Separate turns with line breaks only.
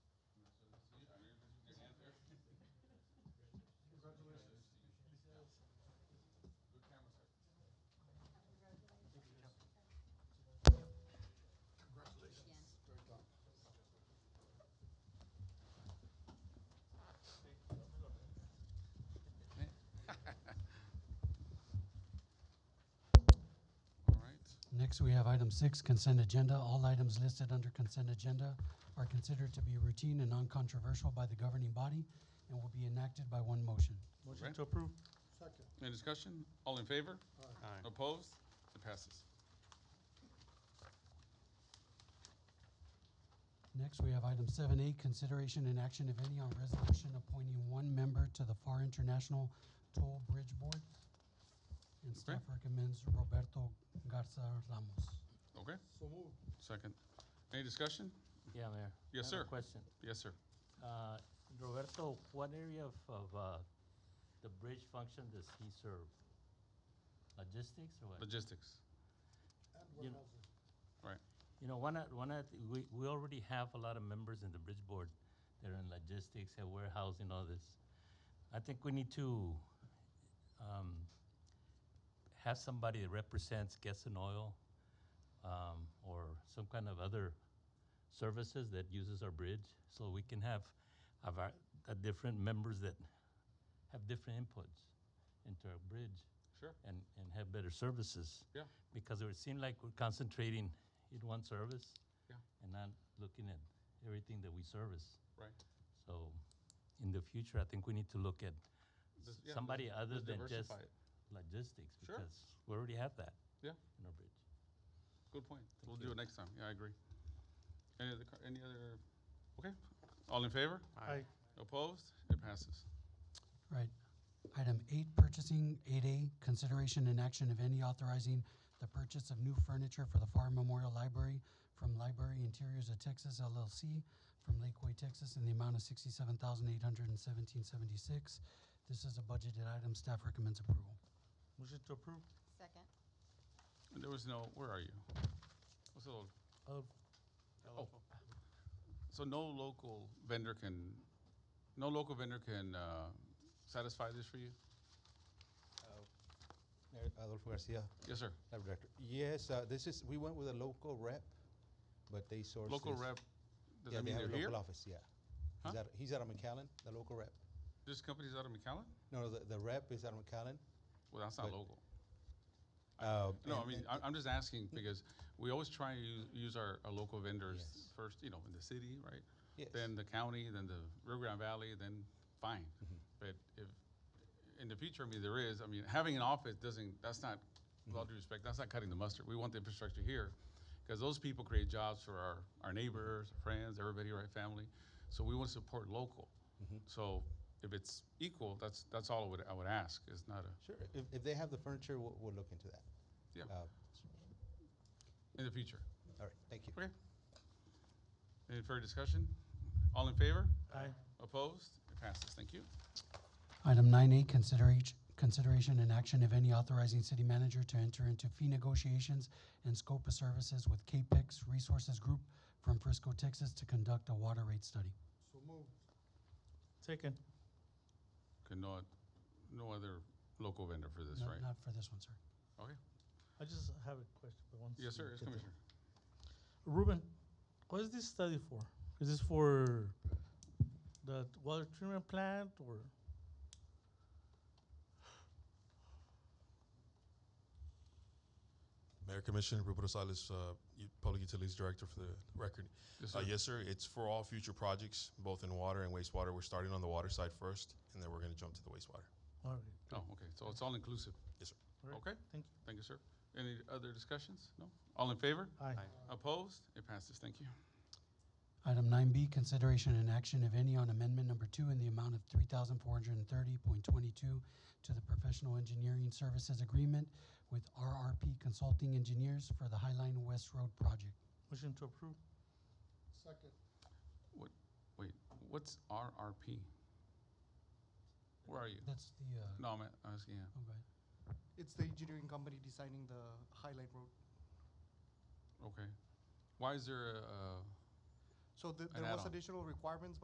Next, we have item six, consent agenda. All items listed under consent agenda are considered to be routine and non-controversial by the governing body and will be enacted by one motion.
Motion
Right.
to approve.
Second.
Any discussion? All in favor?
Aye.
Opposed? It passes.
Next, we have item seven A, consideration and action, if any, on resolution appointing one member to the FAR International Toll Bridge Board. And staff recommends Roberto Garza Ramos.
Okay,
So moved.
second. Any discussion?
Yeah, Mayor.
Yes,
I
sir.
have a question.
Yes, sir.
Uh, Roberto, what area of, of, uh, the bridge function does he serve? Logistics or what?
Logistics.
And
You
warehousing.
know- You know, why not, why not, we, we already have a lot of members in the bridge board that are in logistics and warehousing, all this. I think we need to, um, have somebody that represents gas and oil, um, or some kind of other services that uses our bridge, so we can have, have our, uh, different members that have different inputs into our bridge
Sure.
and, and have better services.
Yeah.
Because it would seem like we're concentrating in one service.
Yeah.
And not looking at everything that we service.
Right.
So in the future, I think we need to look at
This- yeah,
somebody other
let's
than just
diversify it.
logistics.
Sure.
Because we already have that.
Yeah.
In our bridge.
Good point. We'll
Thank
do
you.
it next time. Yeah, I agree. Any other, co- any other, okay. All in favor?
Aye.
Opposed? It passes.
Right. Item eight, purchasing, eight A, consideration and action, if any, authorizing the purchase of new furniture for the FAR Memorial Library from Library Interiors of Texas LLC from Lakeway, Texas, in the amount of sixty-seven thousand eight hundred and seventeen seventy-six. This is a budgeted item. Staff recommends approval.
Motion to approve.
Second.
And There was no, where are you? What's the, lo- Oh. so no local vendor can, no local vendor can, uh, satisfy this for you?
Mayor Uh, Adolfo Garcia,
Yes, sir.
Lab Director. Yes, uh, this is, we went with a local rep, but they sourced
Local
this.
rep, does
Yeah,
that
they
mean
have a
they're here?
local office, yeah. He's
Huh?
out, he's out of McAllen, the local rep.
This company's out of McAllen?
No, no, the, the rep is out of McAllen.
Well, that's not
But-
local.
Uh,
No, I
and-
mean,
and-
I- I'm just asking because we always try to use, use our, our local vendors
Yes.
first, you know, in the city, right?
yes.
Then the county, then the Rio Grande Valley, then fine. But if, in the future, I mean, there is, I mean, having an office doesn't, that's not, with all due respect, that's not cutting the mustard. We want the infrastructure here because those people create jobs for our, our neighbors, friends, everybody, right, family. So we want to support local. So if it's equal, that's, that's all I would, I would ask. It's not a,
Sure, if, if they have the furniture, we'll, we'll look into that.
Yeah.
Uh,
in the future.
All right, thank you.
Okay. Any further discussion? All in favor?
Aye.
Opposed? It passes. Thank you.
Item nine A, consideration, consideration and action, if any, authorizing city manager to enter into fee negotiations and scope of services with CAPEX Resources Group from Frisco, Texas, to conduct a water rate study.
So moved.
Second.
Okay, no, no other local vendor for this,
Not-
right?
Not for this one, sir.
Okay.
I just have a question, but once.
Yes, sir.
you
Yes,
get there.
Commissioner.
Ruben, what is this study for? Is this for the water treatment plant or?
Mayor Commissioner Ruben Rosales, uh, U- Public Utilities Director for the record.
Yes,
Uh,
sir.
Yes, sir, it's for all future projects, both in water and wastewater. We're starting on the water side first, and then we're going to jump to the wastewater.
All right.
Oh, okay. So it's all inclusive.
Yes, sir.
All right.
Okay.
Thank
Thank you, sir. Any other discussions? No? All in favor?
you. Aye.
Opposed? It passes. Thank you.
Item nine B, consideration and action, if any, on amendment number two in the amount of three thousand four hundred and thirty point twenty-two to the professional engineering services agreement with RRP Consulting Engineers for the Highline West Road project.
Motion to approve.
Second.
Wait, what's RRP? Where are you?
That's the, uh,
No, I'm a- asking, yeah.
okay.
It's the engineering company designing the Highline Road.
Okay. Why is there a, a
So th-
An
there was
add-on.
additional requirements